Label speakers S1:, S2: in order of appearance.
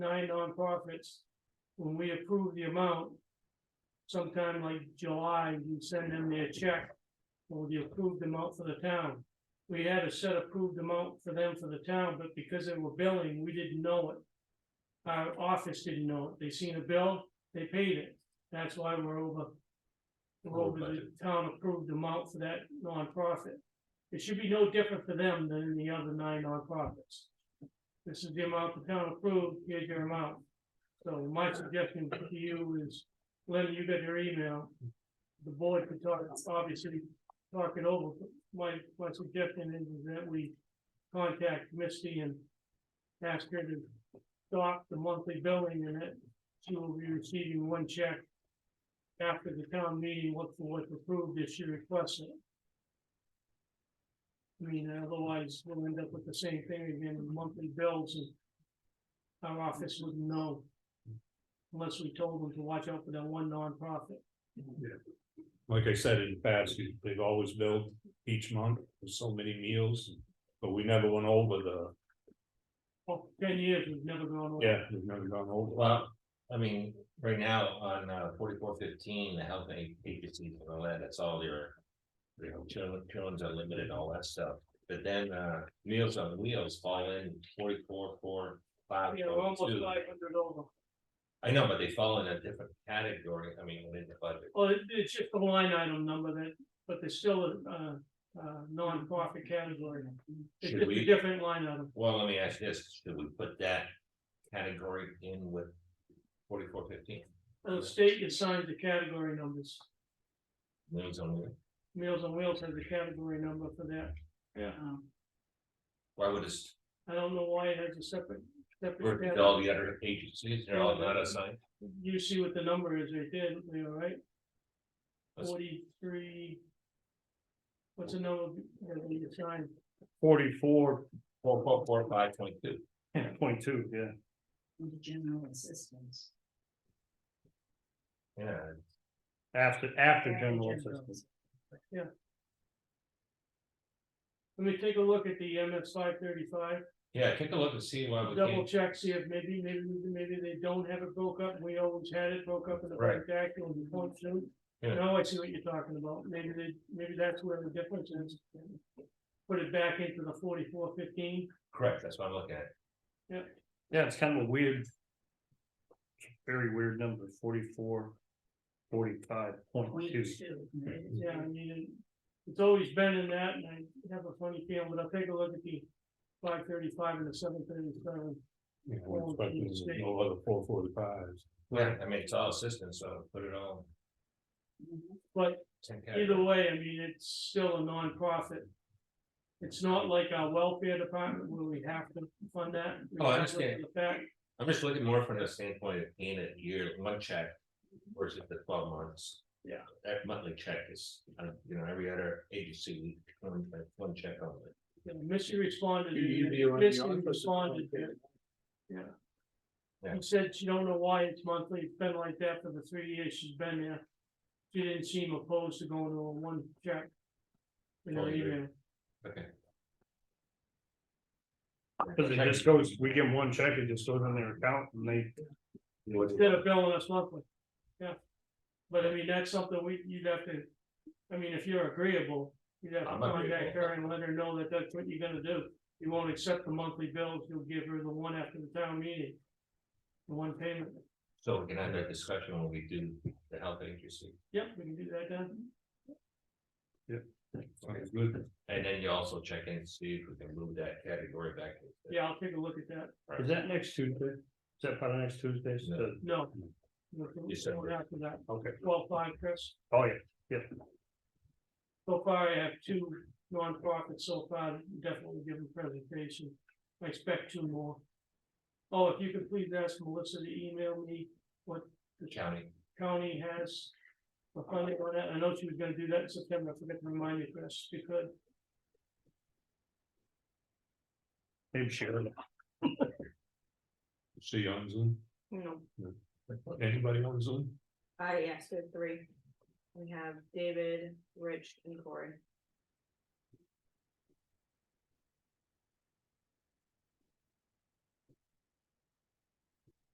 S1: nine nonprofits, when we approve the amount, sometime like July, you send them their check for the approved amount for the town. We had a set approved amount for them for the town, but because they were billing, we didn't know it. Our office didn't know it. They seen a bill, they paid it. That's why we're over. We're over the town approved amount for that nonprofit. It should be no different for them than the other nine nonprofits. This is the amount the town approved, here's your amount. So my suggestion to you is, Linda, you got your email. The board could talk, obviously, talk it over, but my, my suggestion is that we contact Misty and ask her to stop the monthly billing and that she will be receiving one check after the town meeting, look for what's approved if she requests it. I mean, otherwise, we'll end up with the same thing again, monthly bills and our office wouldn't know unless we told them to watch out for that one nonprofit.
S2: Like I said in the past, you- they've always billed each month for so many meals, but we never went over the,
S1: Oh, ten years, we've never gone over.
S2: yeah, we've never gone over.
S3: Well, I mean, right now on uh forty-four fifteen, the health aid agencies and all that, that's all your. You know, children, children's unlimited, all that stuff, but then uh Meals on Wheels fall in forty-four, four, five.
S1: Yeah, we're almost
S3: 22.
S1: five hundred over.
S3: I know, but they fall in a different category, I mean, within the budget.
S1: Well, it, it's just a line item number that, but there's still a, uh, uh, nonprofit category. It's
S3: Should
S1: just a
S3: we-
S1: different line item.
S3: Well, let me ask you this, should we put that category in with forty-four fifteen,
S1: Well, The state assigns the category numbers.
S3: Meals on Wheels?
S1: Meals on Wheels has a category number for that.
S3: Yeah.
S1: Um,
S3: Why would this,
S1: I don't know why it has a separate, separate
S3: versus
S1: category.
S3: all the other agencies, they're all not assigned?
S1: You see what the number is right there, Leo, right?
S3: That's-
S1: Forty-three. What's the number that we assigned?
S2: Forty-four
S3: Four, four, four, five, twenty-two.
S2: point two, yeah.
S4: Under general assistance.
S3: Yeah,
S2: After, after general assistance.
S1: Let me take a look at the MS five thirty-five,
S3: yeah, take a look and see why we
S1: double
S3: can't,
S1: check, see if maybe, maybe, maybe they don't have it broke up, we always had it broke up in the
S3: Right.
S1: backdack and the point two.
S3: Yeah.
S1: Now I see what you're talking about, maybe they, maybe that's where the difference is. Put it back into the forty-four fifteen,
S3: correct, that's what I'm looking at,
S2: Yeah, it's kind of a weird. Very weird number, forty-four, forty-five point
S4: Point
S2: two. Mm-hmm.
S4: two, right?
S3: Mm-hmm.
S1: yeah, I mean, it's always been in that, and I have a funny feeling, but I'll take a look at the five thirty-five and the seven thirty-seven.
S2: You know, we're expecting to go over the four forty-fives.
S3: yeah, I mean, it's all assistance, so put it all.
S4: Mhm.
S1: But
S3: in 10
S1: Either
S3: categories.
S1: way, I mean, it's still a nonprofit. It's not like our welfare department where we have to fund that.
S3: Oh, I understand.
S1: The fact,
S3: I'm just looking more from the standpoint of paying a year, one check versus the twelve months.
S1: Yeah.
S3: That monthly check is, uh, you know, every other agency, we only pay one check on it.
S1: you know, Missy responded.
S5: You- you be around the
S1: Missy
S5: office.
S1: responded. Yeah.
S3: Yeah.
S1: She said she don't know why it's monthly. It's been like that for the three years she's been there. She didn't seem opposed to going to a one check. You know,
S3: Totally Oh, agree.
S1: even,
S3: Okay.
S2: Cause it just goes, we give them one check, it just goes on their account and they,
S1: instead of billing us monthly. Yeah. But I mean, that's something we, you'd have to, I mean, if you're agreeable, you'd have to
S3: I'm
S1: contact
S3: agreeable.
S1: her and let her know that that's what you're gonna do. You won't accept the monthly bills, you'll give her the one after the town meeting. The one payment.
S3: So we can have that discussion when we do the health agency,
S1: Yep, we can do that then.
S2: sounds good.
S3: and then you also check in, to see if we can move that category back.
S1: Yeah, I'll take a look at that.
S2: Is that next Tuesday? Is that part of next Tuesday's?
S3: No.
S1: No.
S3: You said
S1: We'll
S3: we're-
S1: go After that,
S2: Okay,
S1: twelve five, Chris.
S2: oh, yeah,
S1: So far, I have two nonprofits so far, definitely given presentation, I expect two more. Oh, if you could please ask Melissa to email me what the
S3: County.
S1: county has. For funding on that, I know she was gonna do that in September, I forgot to remind you, Chris, if you could,
S2: maybe Sharon. See on Zoom?
S6: You know,
S2: Anybody on Zoom?
S6: I asked for three. We have David, Rich, and Corey.